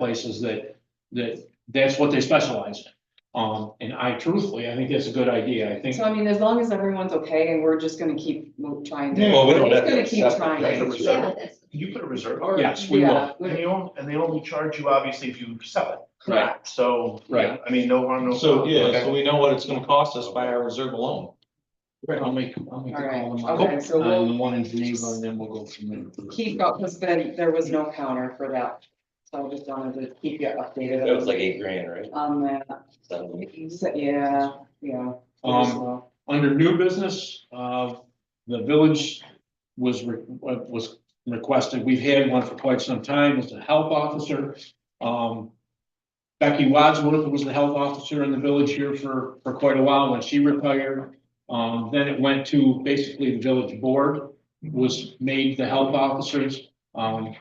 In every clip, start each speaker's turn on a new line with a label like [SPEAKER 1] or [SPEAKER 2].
[SPEAKER 1] places that, that, that's what they specialize in. Um, and I truthfully, I think that's a good idea, I think.
[SPEAKER 2] So I mean, as long as everyone's okay and we're just gonna keep mo- trying to.
[SPEAKER 3] Well, we don't have
[SPEAKER 2] It's
[SPEAKER 3] to
[SPEAKER 2] gonna keep
[SPEAKER 3] accept it,
[SPEAKER 2] trying.
[SPEAKER 3] right?
[SPEAKER 4] Put a
[SPEAKER 5] Yeah,
[SPEAKER 4] reserve,
[SPEAKER 5] that's,
[SPEAKER 4] can you put a reserve? on it?
[SPEAKER 1] Yes, we will,
[SPEAKER 2] Yeah,
[SPEAKER 4] And
[SPEAKER 2] we-
[SPEAKER 4] they only, and they only charge you obviously if you sell it,
[SPEAKER 2] correct.
[SPEAKER 4] so.
[SPEAKER 1] Right.
[SPEAKER 4] I mean, no harm, no.
[SPEAKER 3] So,
[SPEAKER 4] foul.
[SPEAKER 3] yeah,
[SPEAKER 4] Okay.
[SPEAKER 3] so we know what it's gonna cost us by our reserve alone. Uh,
[SPEAKER 1] I'll make, I'll make
[SPEAKER 2] All
[SPEAKER 1] the call
[SPEAKER 2] right,
[SPEAKER 1] tomorrow.
[SPEAKER 2] okay, so
[SPEAKER 1] On
[SPEAKER 2] we'll
[SPEAKER 1] the one in Geneva and then we'll go from there.
[SPEAKER 2] keep up, because then there was no counter for that. So I just wanted to keep you updated.
[SPEAKER 6] That was like eight grand, right?
[SPEAKER 2] On that,
[SPEAKER 6] Seven.
[SPEAKER 2] So, yeah, yeah.
[SPEAKER 1] Um, under new business, uh, the village was, re- was requested, we've had one for quite some time, as a health officer. Um, Becky Wadsworth was the health officer in the village here for, for quite a while when she retired. Um, then it went to basically the village board was made the health officers. Um,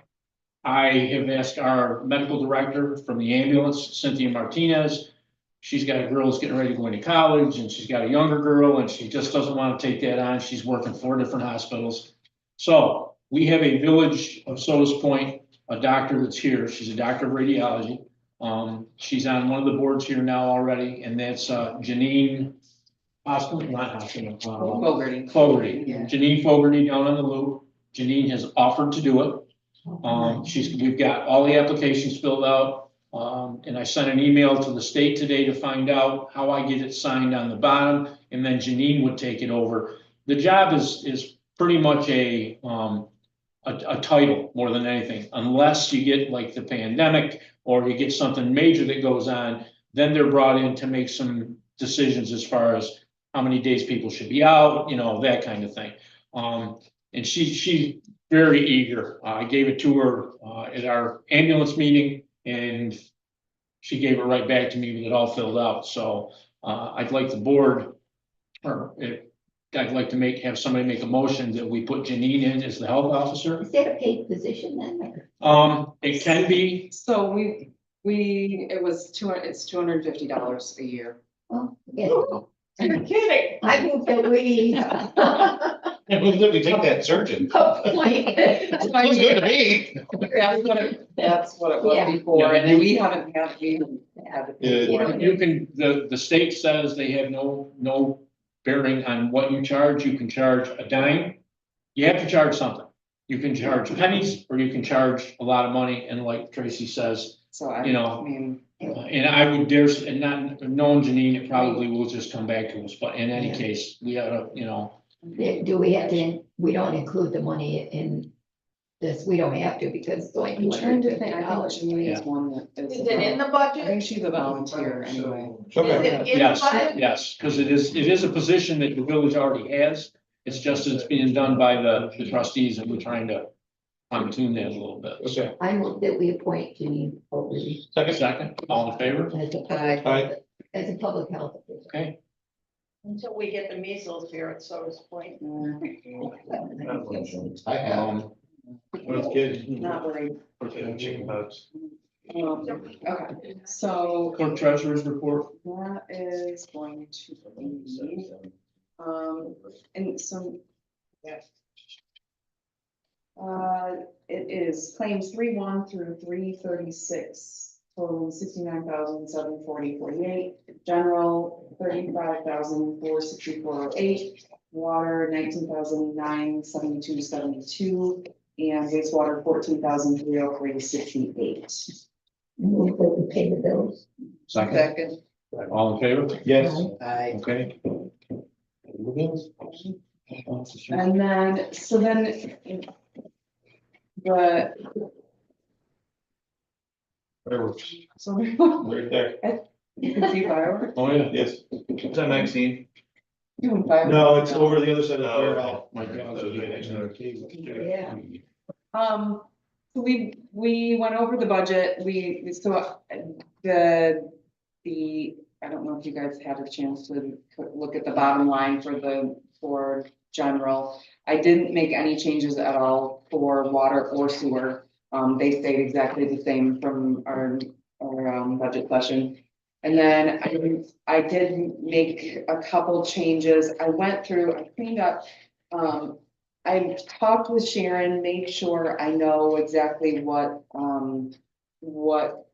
[SPEAKER 1] I have asked our medical director from the ambulance, Cynthia Martinez, she's got a girl who's getting ready to go into college and she's got a younger girl and she just doesn't want to take that on. She's working four different hospitals. So we have a village of Sodas Point, a doctor that's here. She's a doctor of radiology. Um, she's on one of the boards here now already, and that's uh, Janine Hospital, not hospital. uh,
[SPEAKER 2] Fogarty.
[SPEAKER 1] Fogarty,
[SPEAKER 2] Yeah.
[SPEAKER 1] Janine Fogarty down on the loop. Janine has offered to do it. Um, she's, we've got all the applications filled out. Um, and I sent an email to the state today to find out how I get it signed on the bottom, and then Janine would take it over. The job is, is pretty much a, um, a, a title more than anything, unless you get like the pandemic or you get something major that goes on, then they're brought in to make some decisions as far as how many days people should be out, you know, that kind of thing. Um, and she, she very eager. I gave it to her, uh, at our ambulance meeting and she gave it right back to me with it all filled out. So, uh, I'd like the board or if, I'd like to make, have somebody make a motion that we put Janine in as the health officer.
[SPEAKER 5] is that a paid position then? or-
[SPEAKER 1] Um, it can be,
[SPEAKER 2] So we, we, it was two, it's two hundred and fifty dollars a year.
[SPEAKER 5] Well, oh, yeah,
[SPEAKER 2] You're kidding.
[SPEAKER 5] I think that we.
[SPEAKER 3] Yeah, we literally take that surgeon.
[SPEAKER 5] Hopefully.
[SPEAKER 3] Looks good to me.
[SPEAKER 2] That's what it, that's what it was
[SPEAKER 5] Yeah.
[SPEAKER 2] before,
[SPEAKER 1] Yeah.
[SPEAKER 2] and then we haven't had, we haven't had it.
[SPEAKER 3] Yeah.
[SPEAKER 2] before.
[SPEAKER 1] you can, the, the state says they have no, no bearing on what you charge. You can charge a dime. You have to charge something. You can charge pennies or you can charge a lot of money. And like Tracy says,
[SPEAKER 2] So I,
[SPEAKER 1] You know.
[SPEAKER 2] I mean,
[SPEAKER 1] uh, and I would dare, s- and not, knowing Janine, it probably will just come back to us. But in any case, we oughta, you know,
[SPEAKER 5] Do we have to, we don't include the money in this, we don't have to because it's only
[SPEAKER 2] I'm
[SPEAKER 5] two
[SPEAKER 2] trying
[SPEAKER 5] hundred
[SPEAKER 2] to
[SPEAKER 5] fifty
[SPEAKER 2] think, I think
[SPEAKER 5] dollars.
[SPEAKER 2] Janine is one that is.
[SPEAKER 7] Is it in the
[SPEAKER 2] I
[SPEAKER 7] budget?
[SPEAKER 2] think she's a volunteer anyway.
[SPEAKER 7] Is
[SPEAKER 3] Okay.
[SPEAKER 7] it in the
[SPEAKER 1] yes,
[SPEAKER 7] budget?
[SPEAKER 1] yes, because it is, it is a position that the village already has. It's just it's being done by the the trustees and we're trying to fine tune that a little bit.
[SPEAKER 3] Okay.
[SPEAKER 5] I move that we appoint Janine Fogarty
[SPEAKER 3] Second,
[SPEAKER 1] Second, all in favor?
[SPEAKER 5] as a
[SPEAKER 2] Aye.
[SPEAKER 5] public, as a public health official.
[SPEAKER 1] Okay,
[SPEAKER 7] Until we get the measles here at Sodas Point,
[SPEAKER 2] Mm,
[SPEAKER 3] I have.
[SPEAKER 1] um,
[SPEAKER 3] That's good.
[SPEAKER 2] Not worried.
[SPEAKER 4] Okay, chicken bugs.
[SPEAKER 2] Um, Okay, so
[SPEAKER 1] clerk treasurer's report.
[SPEAKER 2] that is going to be, um, and so. Uh, it is claims three one through three thirty-six, totaling sixty-nine thousand seven forty forty-eight. General thirty-five thousand four sixty-four oh eight, water nineteen thousand nine seventy-two seventy-two. And wastewater fourteen thousand three oh three sixty-eight.
[SPEAKER 5] Move that we pay the bills.
[SPEAKER 1] Second, all in favor?
[SPEAKER 3] Yes.
[SPEAKER 2] Aye.
[SPEAKER 1] Okay.
[SPEAKER 2] And then, so then. The,
[SPEAKER 3] Whatever,
[SPEAKER 2] so you
[SPEAKER 3] Right there.
[SPEAKER 2] can see fireworks,
[SPEAKER 1] Oh, yeah.
[SPEAKER 3] Yes.
[SPEAKER 4] Is that Maxine?
[SPEAKER 2] doing fireworks.
[SPEAKER 3] No, it's over the other side
[SPEAKER 4] Oh,
[SPEAKER 3] of the warehouse.
[SPEAKER 4] No.
[SPEAKER 1] My God.
[SPEAKER 5] Yeah.
[SPEAKER 2] Um, so we, we went over the budget, we, we still, uh, the, the, I don't know if you guys had a chance to look at the bottom line for the, for general. I didn't make any changes at all for water or sewer. Um, they stayed exactly the same from our, our, um, budget session. And then I, I did make a couple changes. I went through, I cleaned up, um, I talked with Sharon, made sure I know exactly what, um, what